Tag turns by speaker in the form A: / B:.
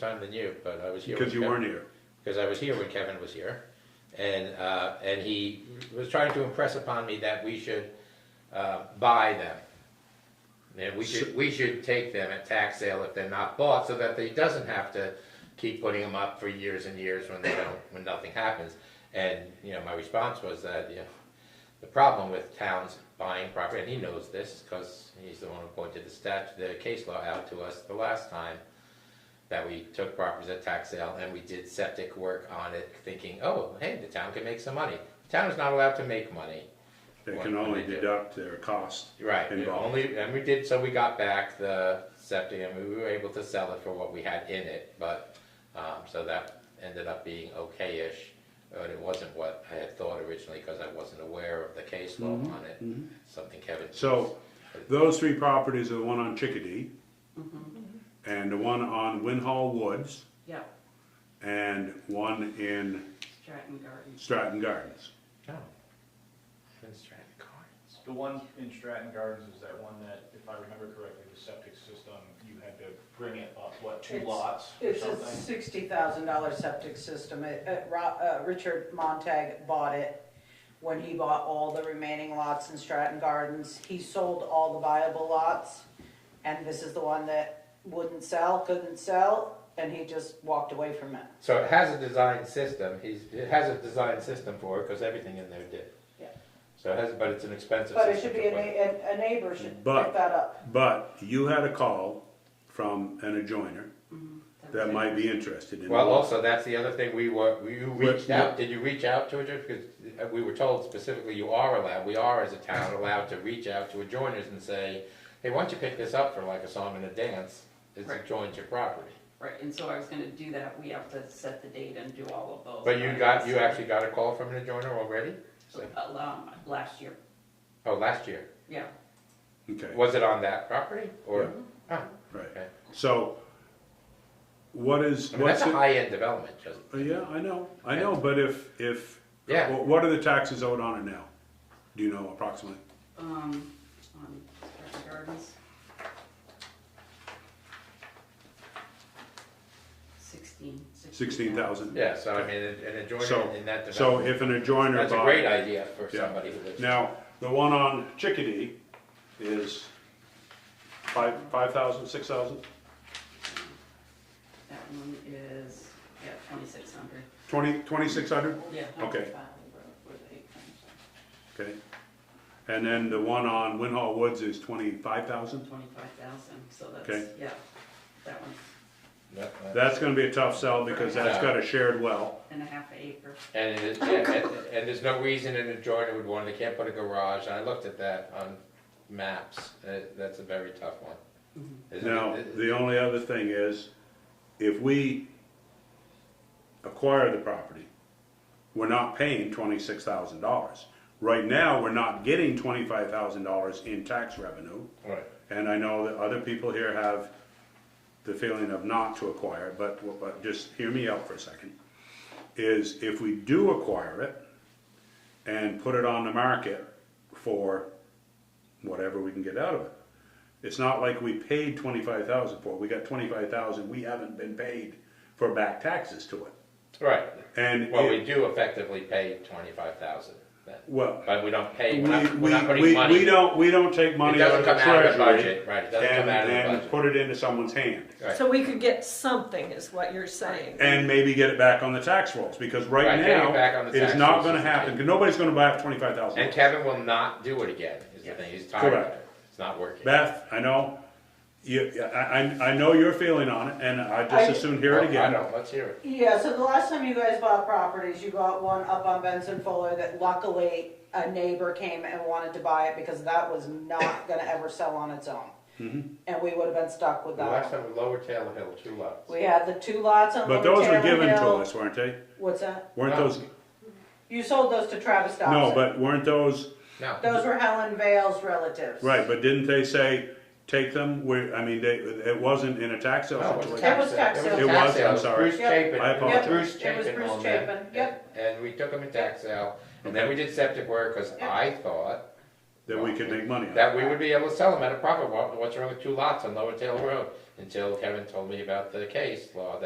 A: time than you, but I was here.
B: because
A: when
B: you
A: Kevin-
B: weren't here.
A: Because I was here when Kevin was here, and, uh, and he was trying to impress upon me that we should, uh, buy them. And we should, we should take them at tax sale if they're not bought, so that they doesn't have to keep putting them up for years and years when they don't, when nothing happens. And, you know, my response was that, you know, the problem with towns buying property, and he knows this, because he's the one who pointed the stat, the case law out to us the last time, that we took properties at tax sale and we did septic work on it, thinking, oh, hey, the town can make some money. The Town is not allowed to make money.
B: They
A: What-
B: can
A: what
B: only
A: they do.
B: deduct their cost.
A: Right, and
B: Involved.
A: only, and we did, so we got back the septic, and we were able to sell it for what we had in it, but, um, so that ended up being okay-ish, but it wasn't what I had thought originally, because I wasn't aware of the case law on it, something Kevin.
B: So those three properties are the one on Chickadee
A: Mm-hmm.
B: and the one on Winhall Woods
C: Yep,
B: and one in
C: Stratton Gardens.
B: Stratton Gardens.
A: Oh. Been stranded cards.
D: The one in Stratton Gardens is that one that, if I remember correctly, the septic system, you had to bring it up, what, two
E: It's-
D: lots or
E: It's a
D: something?
E: sixty thousand dollar septic system. It, it, Ro- uh, Richard Montag bought it when he bought all the remaining lots in Stratton Gardens. He sold all the viable lots, and this is the one that wouldn't sell, couldn't sell, and he just walked away from it.
A: So it has a design system, he's, it has a design system for it, because everything in there did.
E: Yeah.
A: So it has, but it's an expensive
E: But
A: system.
E: it should
A: to
E: be, a,
A: put-
E: na- a a neighbor should
B: But-
E: pick that up.
B: But you had a call from an adjoiner that might be interested in.
A: Well,
B: it.
A: also, that's the other thing, we were, we- you reached
B: yeah.
A: out, did you reach out to adjourners? Because uh, we were told specifically you are allowed, we are as a town allowed to reach out to adjoiners and say, hey, why don't you pick this up for like a song and a dance, it's
C: Right.
A: adjoined your property.
C: Right, and so I was gonna do that, we have to set the date and do all of those.
A: But you got, you actually got a call from an adjoiner already? So-
C: Um, last year,
A: Oh, last year,
C: yeah,
B: Okay,
A: was it on that property, or, oh,
B: right.
A: okay.
B: So what is,
A: I mean, that's
B: what's
A: a
B: it?
A: high-end development, just,
B: Uh, Yeah, I know, I know, but if, if,
A: Yeah.
B: wh- what are the taxes owed on it now? Do you know approximately?
C: um, on Stratton Gardens. Sixteen.
B: Sixteen thousand?
A: yeah, so I mean, an adjoiner
B: So,
A: in that
B: so
A: development,
B: if an adjoiner
A: that's a
B: bought-
A: great idea for
B: Yeah.
A: somebody who lives.
B: Now, the one on Chickadee is five, five thousand, six thousand,
C: That one is, yeah, twenty-six hundred,
B: twenty, twenty-six hundred?
C: yeah.
B: Okay.
C: With eight times,
B: Okay. And then the one on Winhall Woods is twenty-five thousand?
C: Twenty-five thousand, so that's,
B: Okay.
C: yeah, that one's
A: No, no.
B: That's gonna be a tough sell because that's got a shared well.
C: and a half acre.
A: And, it is- and, and and there's no reason an adjoiner would want, they can't put a garage, and I looked at that on maps, Uh, that's a very tough one. Isn't it?
B: Now,
A: It-
B: the only other thing is, if we acquire the property, we're not paying twenty-six thousand dollars. Right now, we're not getting twenty-five thousand dollars in tax revenue,
A: Right,
B: and I know that other people here have the feeling of not to acquire, but, but just hear me out for a second. Is if we do acquire it and put it on the market for whatever we can get out of it. It's not like we paid twenty-five thousand for it, we got twenty-five thousand, we haven't been paid for back taxes to it.
A: right,
B: And,
A: well, we
B: it-
A: do effectively pay twenty-five thousand,
B: well,
A: but we don't
B: we,
A: pay, we're not, we're
B: we,
A: not putting
B: we,
A: money.
B: we don't, we don't take money out
A: doesn't
B: of the
A: come out of the
B: treasury
A: budget, right, it
B: and,
A: doesn't come out of the
B: and
A: budget.
B: put it into someone's hand.
A: Right.
F: So we could get something, is what you're saying.
B: and maybe get it back on the tax rolls, because right
A: Right, getting it
B: now,
A: back on the
B: it is
A: tax
B: not
A: rolls
B: gonna
A: is-
B: happen, 'cause nobody's gonna buy up twenty-five thousand.
A: And Kevin will not do it again, is the
C: Yes.
A: thing, he's tired of
B: Correct.
A: it, it's not working.
B: Beth, I know, you, I, I, I know your feeling on it, and I
E: I-
B: just assumed hear
A: Oh,
B: it
A: I
B: again.
A: know, let's hear it.
E: Yeah, so the last time you guys bought properties, you bought one up on Benson Fuller that luckily a neighbor came and wanted to buy it because that was not gonna ever sell on its own.
B: Mm-hmm.
E: And we would have been stuck with
A: The last
E: that.
A: time, Lower Taylor Hill, two lots.
E: We had the two lots on
B: But
E: Lower
B: those were
E: Taylor
B: given to
E: Hill.
B: us, weren't they?
E: What's that?
B: Weren't
A: No.
B: those,
E: You sold those to Travis Dobson.
B: no, but weren't those,
E: Those
A: No,
E: were Helen Vale's relatives.
B: right, but didn't they say, take them, we, I mean, they, it wasn't in a tax sale
A: no, it was a
B: situation?
E: It was
A: tax
E: tax
A: sale,
E: sale.
A: it was a
B: It
A: tax
B: was,
A: sale,
B: I'm
A: it was
B: sorry.
A: Bruce Chapin.
B: I
A: Yep,
B: apologize.
A: Bruce
E: It was
A: Chapin
E: Bruce
A: owned that.
E: Chapin, yep.
A: And we took them in tax sale, and then we did septic work, cause
E: Yep.
A: I thought
B: That we could make money on.
A: that we would be able to sell them at a profit, What- what's wrong with two lots on Lower Taylor Road? Until Kevin told me about the case law